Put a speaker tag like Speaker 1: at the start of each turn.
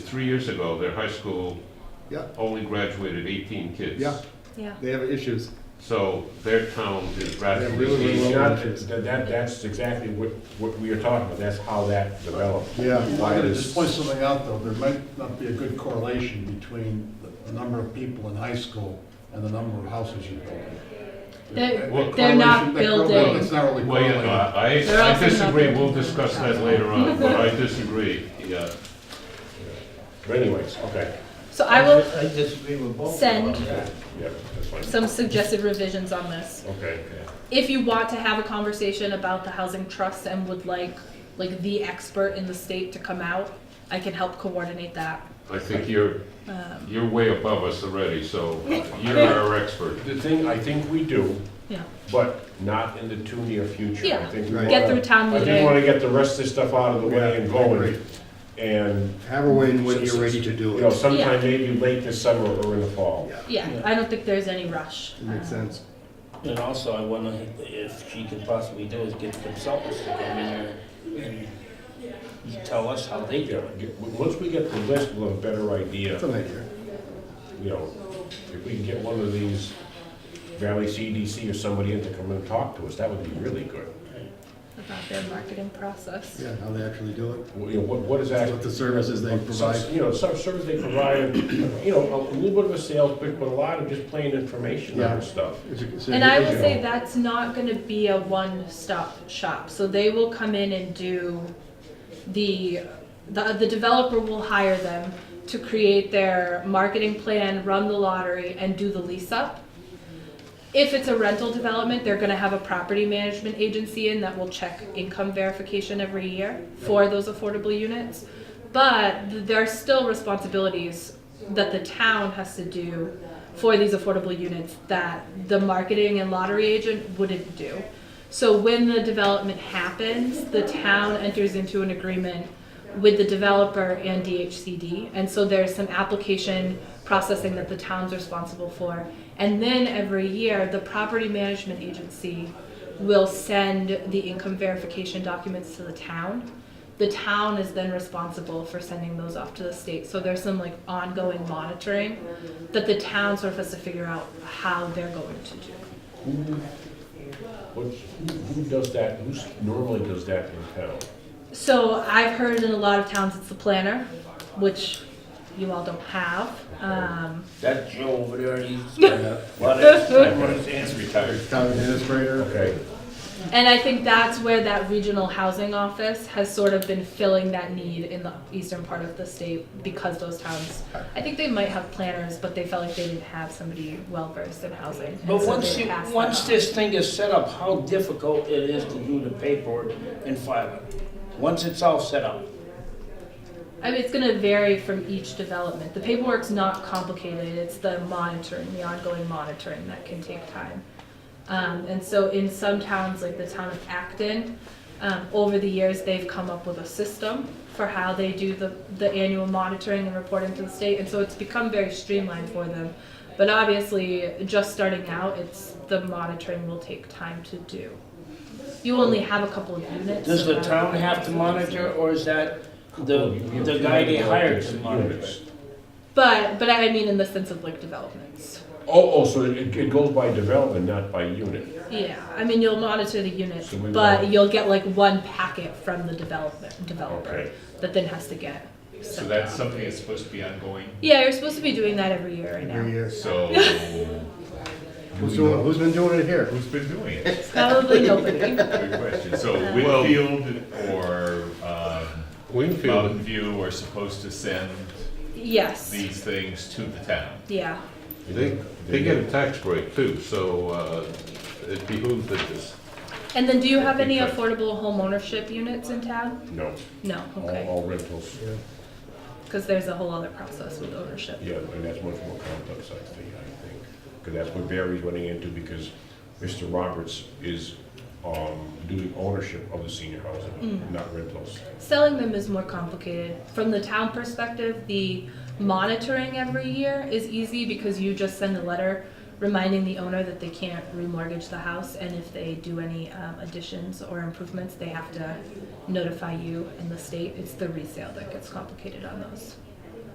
Speaker 1: three years ago, their high school
Speaker 2: Yeah.
Speaker 1: only graduated 18 kids.
Speaker 2: Yeah.
Speaker 3: Yeah.
Speaker 2: They have issues.
Speaker 1: So their town is
Speaker 2: Yeah, really, really
Speaker 1: radically
Speaker 2: well.
Speaker 1: changed.
Speaker 4: Not, that, that- that's exactly what, what we are talking about, that's how that developed.
Speaker 2: Yeah.
Speaker 5: I'm
Speaker 4: Why
Speaker 5: gonna
Speaker 4: this-
Speaker 5: just point something out, though, there might not be a good correlation between the- the number of people in high school and the number of houses you build.
Speaker 3: They're-
Speaker 5: That
Speaker 3: they're not
Speaker 5: correlation- that correl-
Speaker 3: building.
Speaker 5: It's not really
Speaker 1: Well, yeah, no,
Speaker 5: correlated.
Speaker 3: They're
Speaker 1: I, I
Speaker 3: also not
Speaker 1: disagree,
Speaker 3: good.
Speaker 1: we'll discuss that later on, but I disagree, yeah.
Speaker 4: But anyways, okay,
Speaker 3: So I will
Speaker 6: I disagree with both. of
Speaker 3: send
Speaker 6: them.
Speaker 4: yeah, yeah, that's fine,
Speaker 3: some suggested revisions on this.
Speaker 4: okay.
Speaker 3: If you want to have a conversation about the housing trust and would like, like the expert in the state to come out, I can help coordinate that.
Speaker 1: I think you're,
Speaker 3: Um,
Speaker 1: you're way above us already, so you're our expert.
Speaker 4: The thing, I think we do,
Speaker 3: yeah,
Speaker 4: but not in the too near future. I
Speaker 3: Yeah.
Speaker 4: think we
Speaker 2: Right.
Speaker 3: get
Speaker 4: wanna-
Speaker 3: through town
Speaker 4: I just want
Speaker 3: meeting.
Speaker 4: to get the rest of this stuff out of the
Speaker 2: Yeah,
Speaker 4: way and
Speaker 2: I
Speaker 4: going.
Speaker 2: agree.
Speaker 4: And,
Speaker 2: Have a win when you're ready to do
Speaker 4: you know,
Speaker 2: it.
Speaker 4: sometime
Speaker 3: Yeah.
Speaker 4: maybe late this summer or in the fall.
Speaker 2: Yeah,
Speaker 3: Yeah, I don't think there's any rush.
Speaker 2: it makes
Speaker 3: Um,
Speaker 2: sense.
Speaker 6: And also, I wonder if she could possibly do is get consultants to come in here and tell us how they do
Speaker 4: Yeah,
Speaker 6: it.
Speaker 4: get- w- once we get the list, we'll have a better idea,
Speaker 2: That's an idea.
Speaker 4: you know, if we can get one of these Valley CDC or somebody in to come and talk to us, that would be really good.
Speaker 3: About their marketing process.
Speaker 2: Yeah, how they actually do it.
Speaker 4: Well, You know, what, what is that?
Speaker 2: What the services they
Speaker 4: Some-
Speaker 2: provide.
Speaker 4: You know, some service they provide, you know, a little bit of a sales pitch, but a lot of just plain information
Speaker 2: Yeah.
Speaker 4: on stuff.
Speaker 3: And I will say that's not gonna be a one-stop shop, so they will come in and do the, the, the developer will hire them to create their marketing plan, run the lottery, and do the lease up. If it's a rental development, they're gonna have a property management agency in that will check income verification every year for those affordable units. But th- there are still responsibilities that the town has to do for these affordable units that the marketing and lottery agent wouldn't do. So when the development happens, the town enters into an agreement with the developer and DHCD. And so there's some application processing that the town's responsible for. And then every year, the property management agency will send the income verification documents to the town. The town is then responsible for sending those off to the state. So there's some like ongoing monitoring that the town sort of has to figure out how they're going to do.
Speaker 4: Who, what's, who who does that, who normally does that in town?
Speaker 3: So I've heard in a lot of towns it's the planner, which you all don't have. Um,
Speaker 6: That Joe over there, he's got a lot of time on his hands retired.
Speaker 2: Town administrator.
Speaker 4: Okay,
Speaker 3: and I think that's where that regional housing office has sort of been filling that need in the eastern part of the state because those towns, I think they might have planners, but they felt like they didn't have somebody well versed in housing. and
Speaker 6: But
Speaker 3: so
Speaker 6: once
Speaker 3: they
Speaker 6: you,
Speaker 3: passed that
Speaker 6: once
Speaker 3: on.
Speaker 6: this thing is set up, how difficult it is to do the paperwork and file it, once it's all set up.
Speaker 3: I mean, it's going to vary from each development. The paperwork's not complicated, it's the monitoring, the ongoing monitoring that can take time. Um, and so in some towns, like the town of Acton, um, over the years, they've come up with a system for how they do the, the annual monitoring and reporting to the state. And so it's become very streamlined for them. But obviously, just starting out, it's, the monitoring will take time to do. You only have a couple of units.
Speaker 6: Does the
Speaker 3: so-
Speaker 6: town have to monitor, or is that the, the guy they hired to monitor? it?
Speaker 3: But, but I mean in the sense of like developments.
Speaker 4: oh, oh, so it, it goes by development, not by unit?
Speaker 3: Yeah, I mean, you'll monitor the units,
Speaker 4: So we
Speaker 3: but
Speaker 4: will-
Speaker 3: you'll get like one packet from the development, developer
Speaker 4: Okay.
Speaker 3: that then has to get.
Speaker 7: So
Speaker 3: sent
Speaker 7: that's
Speaker 3: out.
Speaker 7: something that's supposed to be ongoing.
Speaker 3: Yeah, you're supposed to be doing that every year right
Speaker 2: Every
Speaker 3: now.
Speaker 2: year.
Speaker 7: So
Speaker 1: um,
Speaker 2: Who's doing, it? who's been doing it here?
Speaker 7: who's been doing it?
Speaker 3: Probably nobody.
Speaker 7: Good question. So
Speaker 4: Uh-huh.
Speaker 1: Well-
Speaker 7: Winfield or um, Mountain
Speaker 1: Wingfield,
Speaker 7: View are supposed to send
Speaker 3: Yes,
Speaker 7: these things to the town.
Speaker 3: yeah.
Speaker 1: they, they get a tax break too, so uh, it behooves that this,
Speaker 3: And then do you have any affordable homeownership units in town?
Speaker 4: No,
Speaker 3: No,
Speaker 4: all,
Speaker 3: okay,
Speaker 4: all rentals,
Speaker 3: because there's a whole other process with ownership.
Speaker 4: yeah, and that's much more complex, I think, I think. Because that's what Barry's running into, because Mr. Roberts is, um, doing ownership of the senior housing, not rentals.
Speaker 3: Selling them is more complicated. From the town perspective, the monitoring every year is easy because you just send a letter reminding the owner that they can't remortgage the house, and if they do any um, additions or improvements, they have to notify you and the state. It's the resale that gets complicated on those.